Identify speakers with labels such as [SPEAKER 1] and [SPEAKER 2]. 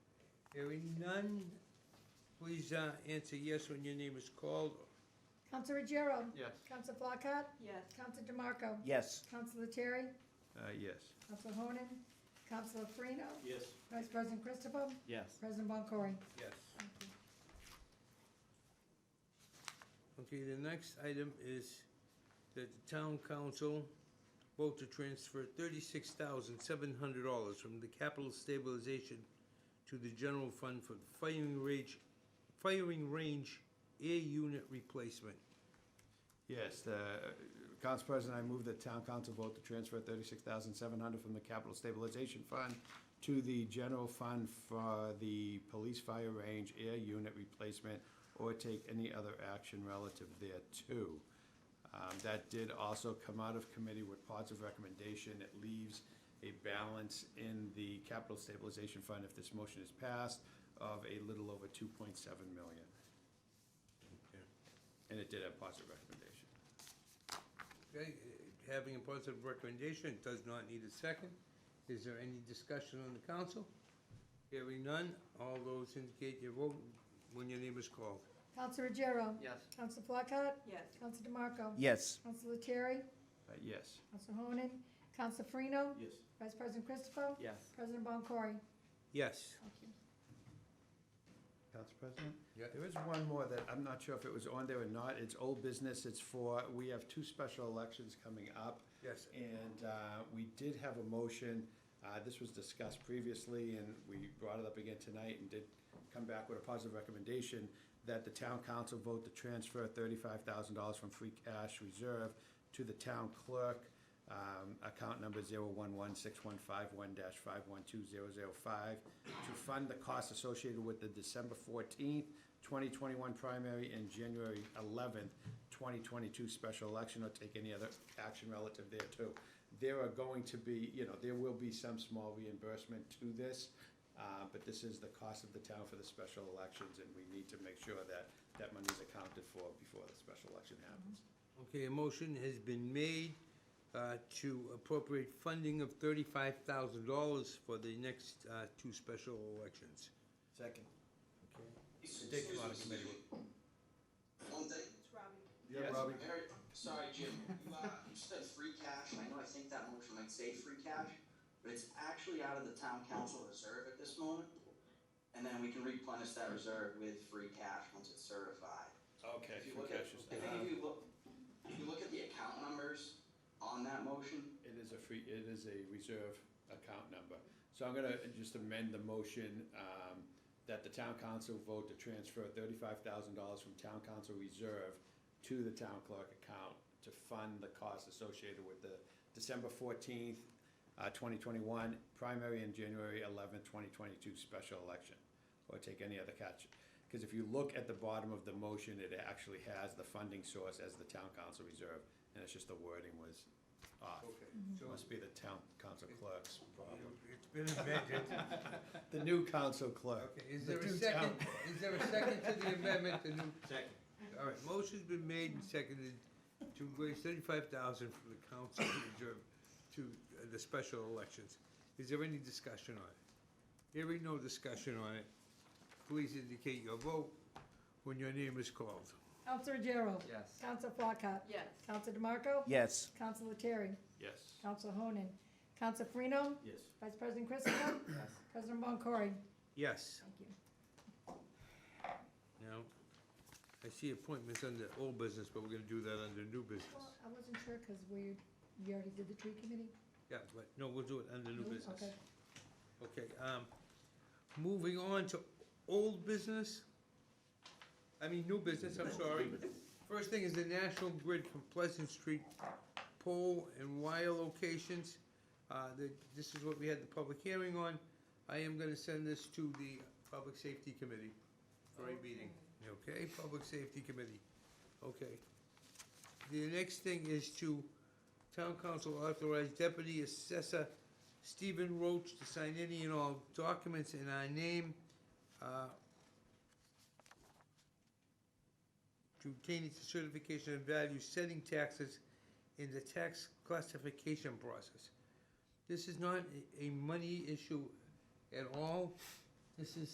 [SPEAKER 1] Hearing none, please uh, answer yes when your name is called.
[SPEAKER 2] Council Ruggiero?
[SPEAKER 3] Yes.
[SPEAKER 2] Council Flacott?
[SPEAKER 4] Yes.
[SPEAKER 2] Council DeMarco?
[SPEAKER 5] Yes.
[SPEAKER 2] Council Terry?
[SPEAKER 3] Uh, yes.
[SPEAKER 2] Council Honan? Council Farino?
[SPEAKER 6] Yes.
[SPEAKER 2] Vice President Christopher?
[SPEAKER 6] Yes.
[SPEAKER 2] President Boncory?
[SPEAKER 1] Yes. Okay, the next item is that the town council vote to transfer thirty-six thousand seven hundred dollars from the capital stabilization to the general fund for firing range, firing range air unit replacement.
[SPEAKER 3] Yes, the, uh, Council President, I move that town council vote to transfer thirty-six thousand seven hundred from the capital stabilization fund to the general fund for the police fire range air unit replacement or take any other action relative thereto. Um, that did also come out of committee with positive recommendation. It leaves a balance in the capital stabilization fund if this motion is passed of a little over two point seven million. And it did have positive recommendation.
[SPEAKER 1] Okay, uh, having a positive recommendation, it does not need a second. Is there any discussion on the council? Hearing none, all those indicate your vote when your name is called.
[SPEAKER 2] Council Ruggiero?
[SPEAKER 6] Yes.
[SPEAKER 2] Council Flacott?
[SPEAKER 4] Yes.
[SPEAKER 2] Council DeMarco?
[SPEAKER 5] Yes.
[SPEAKER 2] Council Terry?
[SPEAKER 3] Uh, yes.
[SPEAKER 2] Council Honan? Council Farino?
[SPEAKER 6] Yes.
[SPEAKER 2] Vice President Christopher?
[SPEAKER 6] Yes.
[SPEAKER 2] President Boncory?
[SPEAKER 1] Yes.
[SPEAKER 2] Thank you.
[SPEAKER 3] Council President?
[SPEAKER 1] Yeah.
[SPEAKER 3] There is one more that I'm not sure if it was on there or not. It's old business. It's for, we have two special elections coming up.
[SPEAKER 1] Yes.
[SPEAKER 3] And uh, we did have a motion. Uh, This was discussed previously, and we brought it up again tonight and did come back with a positive recommendation that the town council vote to transfer thirty-five thousand dollars from free cash reserve to the town clerk, um, account number zero one one six one five one dash five one two zero zero five, to fund the costs associated with the December fourteenth, twenty twenty-one primary and January eleventh, twenty twenty-two special election, or take any other action relative thereto. There are going to be, you know, there will be some small reimbursement to this, uh, but this is the cost of the town for the special elections, and we need to make sure that that money is accounted for before the special election happens.
[SPEAKER 1] Okay, a motion has been made uh, to appropriate funding of thirty-five thousand dollars for the next uh, two special elections.
[SPEAKER 3] Second.
[SPEAKER 1] Take them out of committee.
[SPEAKER 7] One thing,
[SPEAKER 4] It's Robbie.
[SPEAKER 3] Yeah, Robbie.
[SPEAKER 7] Eric, sorry, Jim, you, uh, you said free cash, I know I think that motion might say free cash, but it's actually out of the town council reserve at this moment. And then we can replenish that reserve with free cash once it's certified.
[SPEAKER 3] Okay.
[SPEAKER 7] If you look at, I think if you look, if you look at the account numbers on that motion,
[SPEAKER 3] It is a free, it is a reserve account number. So I'm gonna just amend the motion, um, that the town council vote to transfer thirty-five thousand dollars from town council reserve to the town clerk account to fund the costs associated with the December fourteenth, uh, twenty twenty-one primary and January eleventh, twenty twenty-two special election, or take any other catch. Because if you look at the bottom of the motion, it actually has the funding source as the town council reserve, and it's just the wording was off.
[SPEAKER 1] Okay.
[SPEAKER 3] It must be the town council clerk's problem.
[SPEAKER 1] It's been amended.
[SPEAKER 3] The new council clerk.
[SPEAKER 1] Okay, is
[SPEAKER 3] The
[SPEAKER 1] there a
[SPEAKER 3] new
[SPEAKER 1] second,
[SPEAKER 3] town-
[SPEAKER 1] is there a second to the amendment, the new?
[SPEAKER 6] Second.
[SPEAKER 1] All right, motion's been made and seconded to raise thirty-five thousand from the council reserve to uh, the special elections. Is there any discussion on it? Hearing no discussion on it, please indicate your vote when your name is called.
[SPEAKER 2] Council Ruggiero?
[SPEAKER 6] Yes.
[SPEAKER 2] Council Flacott?
[SPEAKER 4] Yes.
[SPEAKER 2] Council DeMarco?
[SPEAKER 5] Yes.
[SPEAKER 2] Council Terry?
[SPEAKER 3] Yes.
[SPEAKER 2] Council Honan? Council Farino?
[SPEAKER 6] Yes.
[SPEAKER 2] Vice President Christopher?
[SPEAKER 6] Yes.
[SPEAKER 2] President Boncory?
[SPEAKER 1] Yes.
[SPEAKER 2] Thank you.
[SPEAKER 1] Now, I see appointments under old business, but we're gonna do that under new business.
[SPEAKER 2] Well, I wasn't sure because we, you already did the tree committee.
[SPEAKER 1] Yeah, but, no, we'll do it under new
[SPEAKER 2] No?
[SPEAKER 1] business.
[SPEAKER 2] Okay.
[SPEAKER 1] Okay, um, moving on to old business, I mean, new business, I'm sorry. First thing is the National Grid from Pleasant Street pole and wire locations. Uh, the, this is what we had the public hearing on. I am gonna send this to the Public Safety Committee for a meeting. Okay, Public Safety Committee, okay. The next thing is to Town Council authorize Deputy Assessor Stephen Roach to sign any and all documents in our name, uh, to obtain its certification of value, setting taxes in the tax classification process. This is not a- a money issue at all. This is